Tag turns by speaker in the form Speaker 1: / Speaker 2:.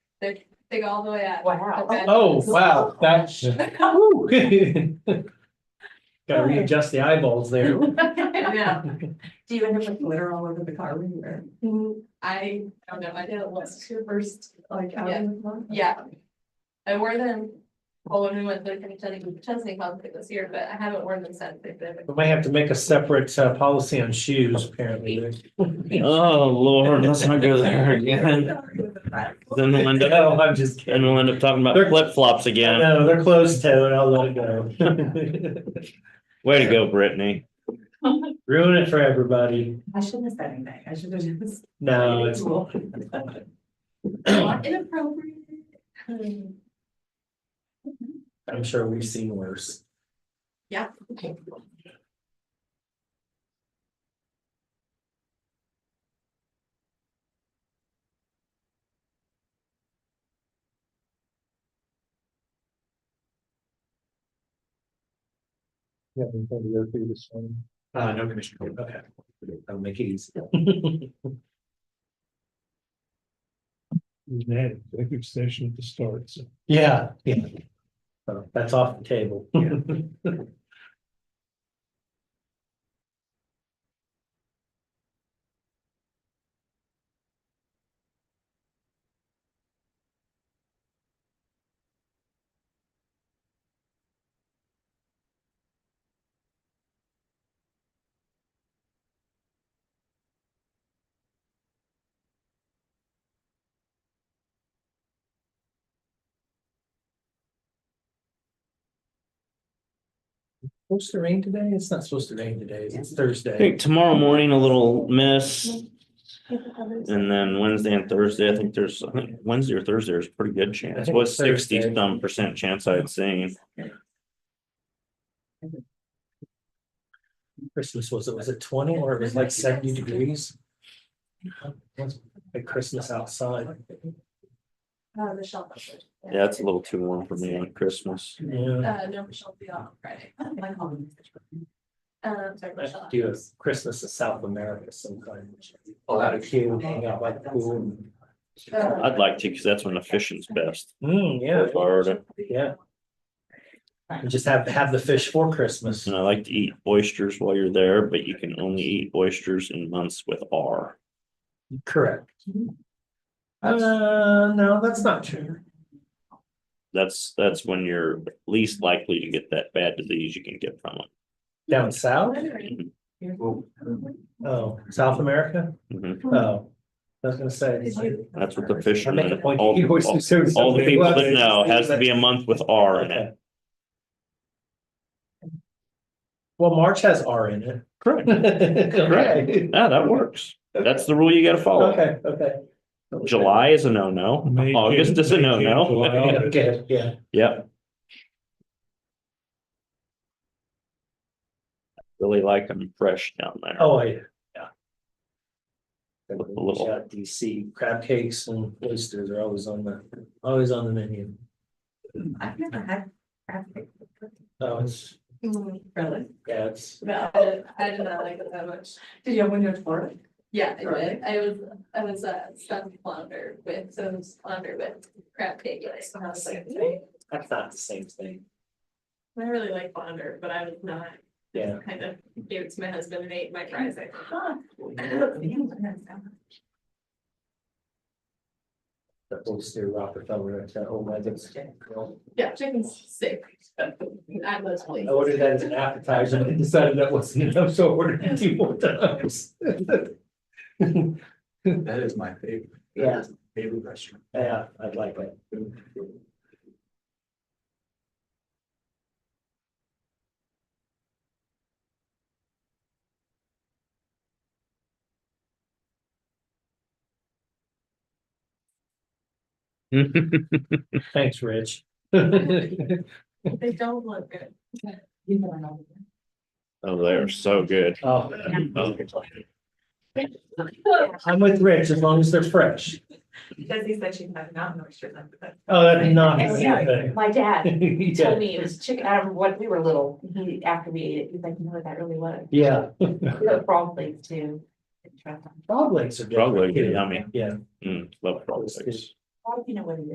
Speaker 1: They, they go all the way out.
Speaker 2: Wow.
Speaker 3: Oh, wow, that's. woo. Gotta readjust the eyeballs there.
Speaker 1: Yeah,
Speaker 2: Do you end up with glitter all over the car when you wear?
Speaker 1: I don't know, I did it once.
Speaker 2: That's your first, like, out
Speaker 1: Yeah.
Speaker 2: in the car?
Speaker 1: Yeah. I wore them, well, when we went to the Chesney, Chesney Conflict this year, but I haven't worn them since. They've been-
Speaker 3: We might have to make a separate uh, policy on shoes, apparently.
Speaker 4: Oh, Lord, let's not go there again. Then we'll end
Speaker 3: No,
Speaker 4: up,
Speaker 3: I'm just kidding.
Speaker 4: then we'll end up talking about flip flops again.
Speaker 3: No, they're closed toed. I'll let it go.
Speaker 4: Way to go, Brittany.
Speaker 3: Ruin it for everybody.
Speaker 2: I shouldn't have said anything. I should have just.
Speaker 3: No, it's,
Speaker 2: Cool.
Speaker 1: Not Inappropriate. Hmm.
Speaker 3: I'm sure we've seen worse.
Speaker 1: Yeah.
Speaker 3: Yeah, we can go through this one. Uh, no commissioner, okay. I'll make it easy.
Speaker 5: We had an executive session at the start, so.
Speaker 3: Yeah, yeah. So that's off the table. Supposed to rain today? It's not supposed to rain today. It's
Speaker 4: I
Speaker 3: Thursday.
Speaker 4: think tomorrow morning a little miss.
Speaker 1: Uh,
Speaker 4: And then Wednesday and Thursday, I think there's, I think Wednesday or Thursday is a pretty good
Speaker 3: I
Speaker 4: chance.
Speaker 3: think
Speaker 4: Was sixty
Speaker 3: Thursday.
Speaker 4: some percent chance I'd seen.
Speaker 3: Christmas was it, was it twenty or it was like seventy degrees? Like Christmas outside.
Speaker 1: Uh, Michelle. Buford.
Speaker 4: Yeah, it's a little too warm for me on Christmas.
Speaker 3: Yeah.
Speaker 1: Uh, no, Michelle will be off Friday.
Speaker 2: My home.
Speaker 1: Um, sorry,
Speaker 3: I
Speaker 1: Michelle.
Speaker 3: should Do a Christmas in South America sometime. A lot of kids hang out by the pool.
Speaker 1: Uh,
Speaker 4: I'd like to, because that's when the fishing's best.
Speaker 3: Mm, yeah,
Speaker 4: for Florida.
Speaker 3: yeah. And Just have, have the fish for Christmas.
Speaker 4: And I like to eat oysters while you're there, but you can only eat oysters in months with R.
Speaker 3: Correct. Uh, no, that's not true.
Speaker 4: That's, that's when you're least likely to get that bad disease you can get from it.
Speaker 3: Down south?
Speaker 1: Wondering,
Speaker 3: Oh, South America?
Speaker 4: Mhm.
Speaker 3: Oh, I was gonna say.
Speaker 1: Did you-
Speaker 4: That's what the
Speaker 3: I make a
Speaker 4: fishermen,
Speaker 3: point.
Speaker 4: all,
Speaker 3: You always
Speaker 4: all-
Speaker 3: assume
Speaker 4: all the
Speaker 3: something.
Speaker 4: people that
Speaker 3: Well,
Speaker 4: know,
Speaker 3: it
Speaker 4: has to
Speaker 3: seems
Speaker 4: be a month with R in it.
Speaker 3: Okay. Well, March has R in it.
Speaker 4: Correct.
Speaker 3: Okay.
Speaker 4: Yeah, that works. That's the rule you gotta follow.
Speaker 3: Okay, okay.
Speaker 4: July is a no-no,
Speaker 5: May,
Speaker 4: August
Speaker 5: June,
Speaker 4: is a
Speaker 5: May, June,
Speaker 4: no-no.
Speaker 5: July.
Speaker 3: Yeah, Okay, yeah.
Speaker 4: Yep. Really like them fresh down there.
Speaker 3: Oh, yeah. yeah.
Speaker 4: A little-
Speaker 3: Yeah, DC crab cakes and oysters are always on the, always on the menu.
Speaker 2: I've never had. traffic.
Speaker 3: Oh, it's,
Speaker 1: Mm,
Speaker 2: Really?
Speaker 3: yeah, it's,
Speaker 1: No, I did- I did not like it that much.
Speaker 2: Did you have windows for it?
Speaker 1: Yeah, I did. I was, I was a stuffed flounder with, so it was flounder with crab cake. And I was like, "Mm,
Speaker 3: that's not the same thing.
Speaker 1: I really like flounder, but I was not
Speaker 3: Yeah.
Speaker 1: kind of gave it to my husband and ate my fries. I think.
Speaker 2: Huh. That's
Speaker 3: The oyster Rockefeller, that old magic.
Speaker 1: Yeah, chicken's sick. I love
Speaker 3: I
Speaker 1: places.
Speaker 3: ordered that as an appetizer and decided that wasn't enough, so I ordered it two more times.
Speaker 6: That is my favorite.
Speaker 3: Yeah.
Speaker 6: That is my Favorite restaurant.
Speaker 3: Yeah, I'd like it. Thanks, Rich. Oh,
Speaker 1: They don't look good.
Speaker 4: Oh, they are so good.
Speaker 3: I'm with Rich as long as they're fresh.
Speaker 2: Because he said she had mountain oysters under that.
Speaker 3: Oh, that's not the same
Speaker 7: Yeah,
Speaker 3: thing.
Speaker 7: my dad told
Speaker 3: Yeah,
Speaker 7: me it was chicken, I remember when we were little, he, after we ate it, he was like, you know what that really was?
Speaker 3: Yeah,
Speaker 7: The frog legs too. Try them.
Speaker 3: frog legs are.
Speaker 4: Frog legs are
Speaker 3: different, too.
Speaker 4: yummy.
Speaker 3: Yeah.
Speaker 4: Mm, love frog legs.
Speaker 7: How do you know what it is?